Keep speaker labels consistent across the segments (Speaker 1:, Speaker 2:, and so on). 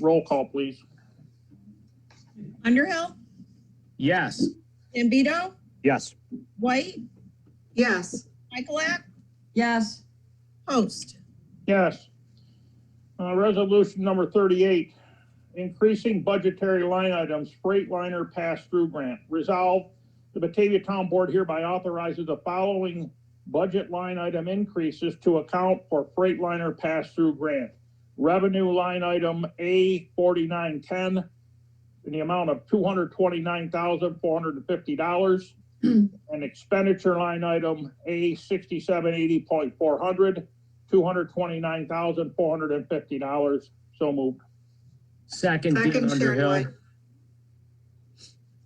Speaker 1: Roll call, please.
Speaker 2: Underhill,
Speaker 3: Yes.
Speaker 2: Zambito,
Speaker 3: Yes.
Speaker 2: White,
Speaker 4: Yes.
Speaker 2: Michaelak,
Speaker 4: Yes.
Speaker 2: Host.
Speaker 1: Yes. Uh, resolution number thirty-eight, increasing budgetary line items, Freightliner pass-through grant. Resolve, the Batavia Town Board hereby authorizes the following budget line item increases to account for Freightliner pass-through grant. Revenue line item A forty-nine-ten in the amount of two hundred twenty-nine thousand, four hundred and fifty dollars. And expenditure line item A sixty-seven eighty point four hundred two hundred twenty-nine thousand, four hundred and fifty dollars. So moved.
Speaker 3: Second, Dean
Speaker 4: Second, Sharon
Speaker 3: Underhill.
Speaker 4: White.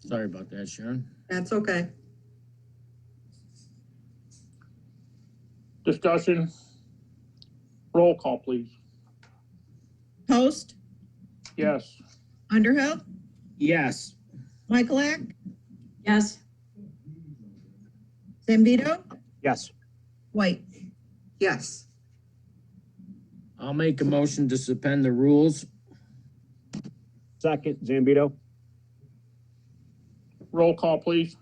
Speaker 3: Sorry about that, Sharon.
Speaker 4: That's okay.
Speaker 1: Discussion. Roll call, please.
Speaker 2: Host,
Speaker 1: Yes.
Speaker 2: Underhill,
Speaker 3: Yes.
Speaker 2: Michaelak,
Speaker 4: Yes.
Speaker 2: Zambito,
Speaker 3: Yes.
Speaker 2: White.
Speaker 4: Yes.
Speaker 3: I'll make a motion to suspend the rules.
Speaker 5: Second, Zambito?
Speaker 1: Roll call, please.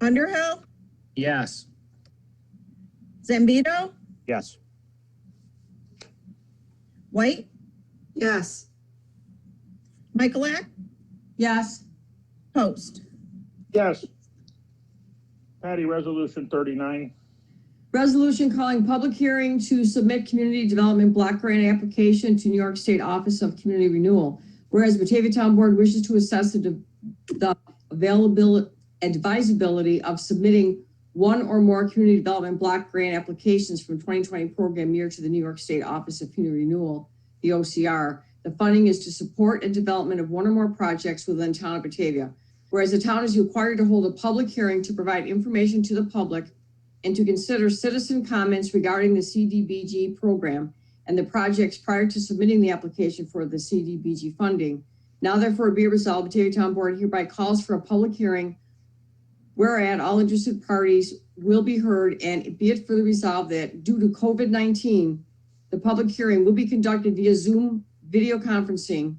Speaker 2: Underhill,
Speaker 3: Yes.
Speaker 2: Zambito,
Speaker 5: Yes.
Speaker 2: White,
Speaker 4: Yes.
Speaker 2: Michaelak,
Speaker 4: Yes.
Speaker 2: Host.
Speaker 1: Yes. Patty, resolution thirty-nine.
Speaker 6: Resolution calling public hearing to submit community development block grant application to New York State Office of Community Renewal. Whereas Batavia Town Board wishes to assess the de- the availability, advisability of submitting one or more community development block grant applications from 2020 program year to the New York State Office of Community Renewal, the OCR. The funding is to support and development of one or more projects within town of Batavia. Whereas the town is required to hold a public hearing to provide information to the public and to consider citizen comments regarding the CDBG program and the projects prior to submitting the application for the CDBG funding. Now therefore be it resolved, Batavia Town Board hereby calls for a public hearing whereat all interested parties will be heard and be it further resolved that due to COVID-19, the public hearing will be conducted via Zoom video conferencing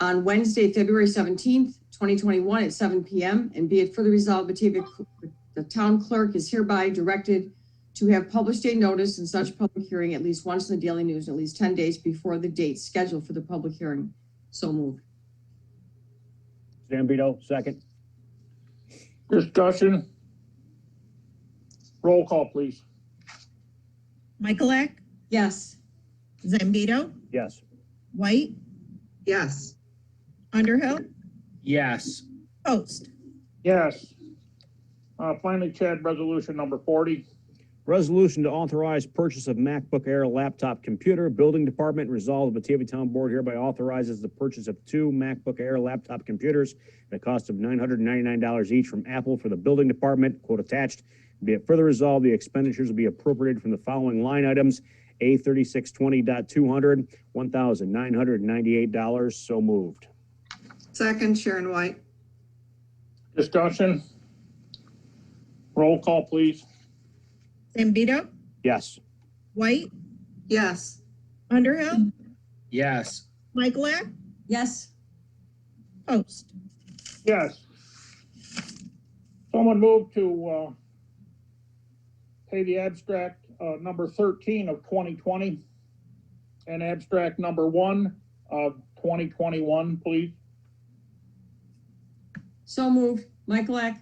Speaker 6: on Wednesday, February 17th, 2021 at 7 p.m. And be it further resolved, Batavia the town clerk is hereby directed to have published a notice in such public hearing at least once in the Daily News, and at least ten days before the date scheduled for the public hearing. So moved.
Speaker 5: Zambito, second?
Speaker 1: Discussion. Roll call, please.
Speaker 2: Michaelak,
Speaker 6: Yes.
Speaker 2: Zambito,
Speaker 5: Yes.
Speaker 2: White,
Speaker 4: Yes.
Speaker 2: Underhill,
Speaker 3: Yes.
Speaker 2: Host.
Speaker 1: Yes. Uh, finally, Chad, resolution number forty.
Speaker 5: Resolution to authorize purchase of MacBook Air laptop computer. Building Department resolved, the Batavia Town Board hereby authorizes the purchase of two MacBook Air laptop computers at a cost of $999 each from Apple for the Building Department, quote attached. Be it further resolved, the expenditures will be appropriated from the following line items. A thirty-six twenty dot two hundred, one thousand nine hundred ninety-eight dollars. So moved.
Speaker 4: Second, Sharon White.
Speaker 1: Discussion. Roll call, please.
Speaker 2: Zambito,
Speaker 5: Yes.
Speaker 2: White,
Speaker 4: Yes.
Speaker 2: Underhill,
Speaker 3: Yes.
Speaker 2: Michaelak,
Speaker 6: Yes.
Speaker 2: Host.
Speaker 1: Yes. Someone move to, uh, pay the abstract, uh, number thirteen of twenty twenty and abstract number one of twenty twenty-one, please.
Speaker 6: So moved. Michaelak?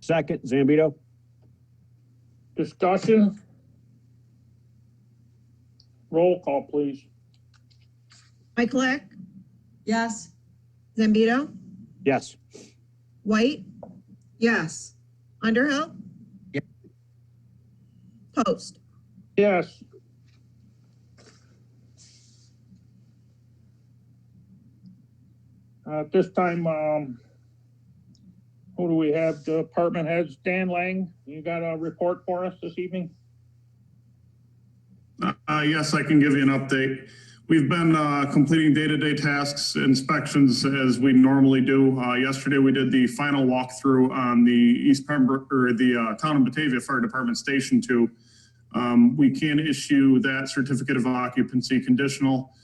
Speaker 5: Second, Zambito?
Speaker 1: Discussion? Roll call, please.
Speaker 2: Michaelak,
Speaker 6: Yes.
Speaker 2: Zambito,
Speaker 5: Yes.
Speaker 2: White,
Speaker 4: Yes.
Speaker 2: Underhill?
Speaker 3: Yeah.
Speaker 2: Host.
Speaker 1: Yes. Uh, At this time, um, who do we have? The Department heads, Dan Lang, you got a report for us this evening?
Speaker 7: Uh, yes, I can give you an update. We've been, uh, completing day-to-day tasks, inspections as we normally do. Uh, yesterday, we did the final walkthrough on the East Pembroke, or the, uh, Town of Batavia Fire Department Station Two. Um, we can issue that certificate of occupancy conditional.